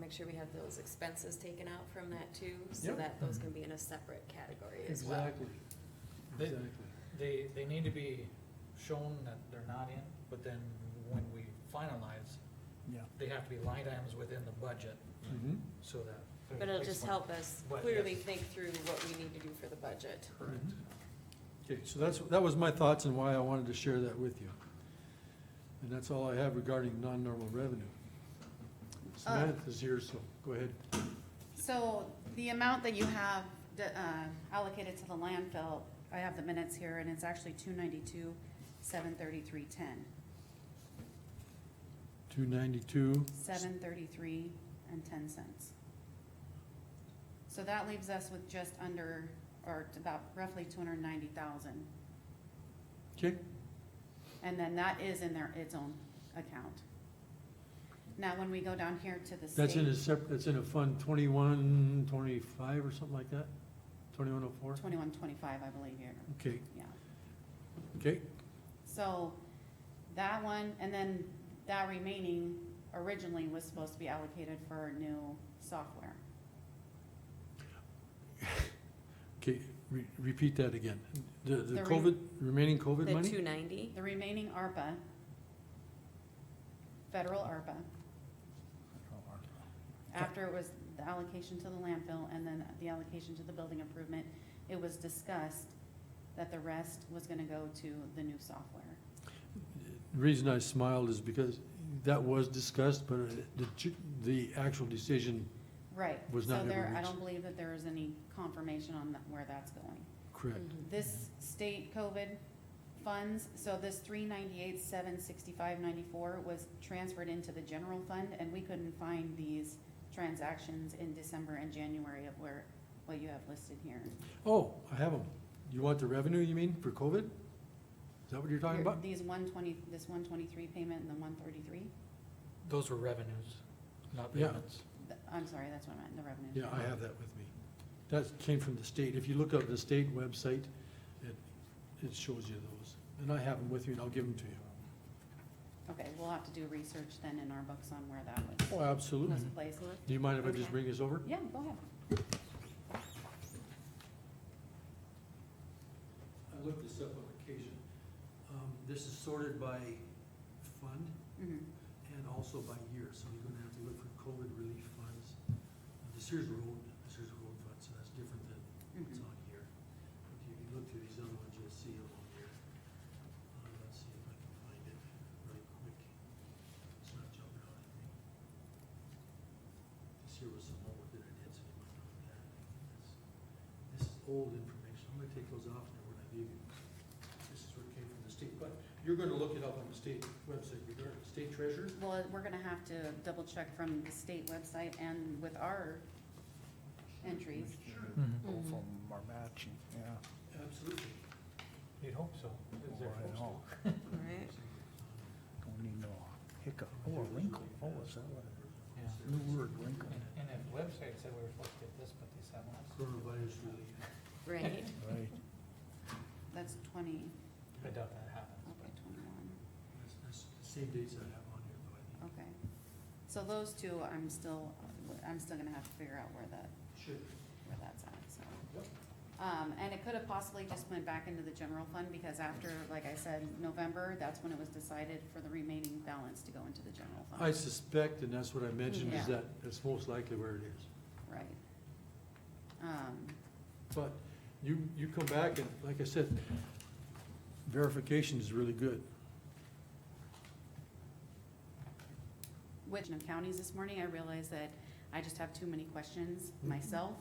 make sure we have those expenses taken out from that too, so Yep. that those can be in a separate category as well. Exactly, They- exactly. They, they need to be shown that they're not in, but then when we finalize, Yeah. they have to be line items within the budget Mm-hmm. Mhm. so that. But it'll just help us But, clearly yes. think through what we need to do for the budget. Correct. Mhm. Okay, so that's, that was my thoughts and why I wanted to share that with you. And that's all I have regarding non-normal revenue. Samantha's here, so go ahead. So the amount that you have uh, allocated to the landfill, I have the minutes here, and it's actually two ninety-two, seven thirty-three, ten. Two ninety-two, Seven thirty-three and ten cents. So that leaves us with just under, or about roughly two hundred and ninety thousand. okay, And then that is in their, its own account. Now, when we go down here to the state. that's in a separate, that's in a fund twenty-one, twenty-five or something like that? Twenty-one oh four? Twenty-one, twenty-five, I believe here, Okay, yeah. okay, So that one, and then that remaining originally was supposed to be allocated for new software. okay, re- repeat that again. The, the The re- COVID, remaining COVID The money? two ninety, The remaining ARPA, federal ARPA, after it was the allocation to the landfill and then the allocation to the building improvement, it was discussed that the rest was gonna go to the new software. The reason I smiled is because that was discussed, but it- the, ju- the actual decision, Right. Was not So there, ever I reached. don't believe that there is any confirmation on that- where that's going. Mm. correct, Mm-hmm. this state COVID funds, so this three ninety-eight, seven sixty-five, ninety-four was transferred into the general fund, and we couldn't find these transactions in December and January of where, what you have listed here. Oh, I have them. You want the revenue, you mean, for COVID? Is that what you're talking Your- about? These one twenty, this one twenty-three payment and the one thirty-three, Those were revenues, not Yeah. payments. I'm sorry, that's what I meant, the revenue. Yeah, I have that with me. That came from the state. If you look up the state website, it, it shows you those. And I have them with me, and I'll give them to you. Okay, we'll have to do research then in our books on where that was, Oh, absolutely. was placed. Do you mind if I just Okay. bring this over? Yeah, go ahead. I looked this up on occasion. Um, this is sorted by fund Mhm. and also by year, so you're gonna have to look for COVID relief funds. This here's road, this here's road fund, so that's different than It's Mhm. on here. Okay, if you look through these other ones, you'll see them on here. Uh, let's see if I can find it right quick. It's not jumping out at me. This here was some homework that I did, so you might know that. That's- This is old information. I'm gonna take those off now when I leave you. This is where it came from the state, but you're gonna look it up on the state website regarding state treasurer. Well, we're gonna have to double check from the state website and with our entries. Both of them are matching, yeah. Absolutely. You'd hope so. Is there Well, Oh, I supposed to? know. right? Don't need no hiccup. Oh, a wrinkle, oh, is that what? Yeah. New word, wrinkle. And, and the website said we were supposed to get this, but they said last. Coronavirus relief. Right, Right. That's twenty, I doubt that happened. okay, twenty-one, That's, that's the same dates I have on here, though, I think. okay. So those two, I'm still, I'm still gonna have to figure out where that, Should. where that's at, so. Yep. Um, and it could have possibly just went back into the general fund, because after, like I said, November, that's when it was decided for the remaining balance to go into the general I fund. suspect, and that's what I mentioned, is Yeah. that that's most likely where it is. Right. Um, But you, you come back and, like I said, verification is really good. which of counties this morning, I realized that I just have too many questions Mhm. myself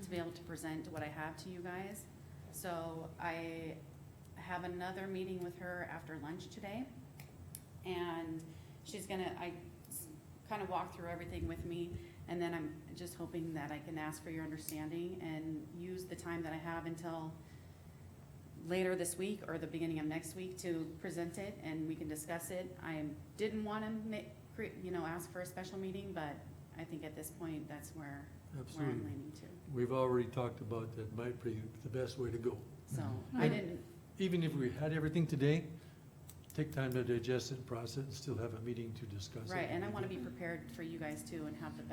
to be able to present what I have to you guys. So I have another meeting with her after lunch today. And she's gonna, I kind of walk through everything with me. And then I'm just hoping that I can ask for your understanding and use the time that I have until later this week or the beginning of next week to present it and we can discuss it. I didn't want to make, you know, ask for a special meeting, but I think at this point, that's where, where I'm Absolutely. leaning to. We've already talked about that might be the best way to go. So I And- didn't, Even if we had everything today, take time to digest it, process it, and still have a meeting to discuss it. right, and I want to be prepared for you guys too and have the best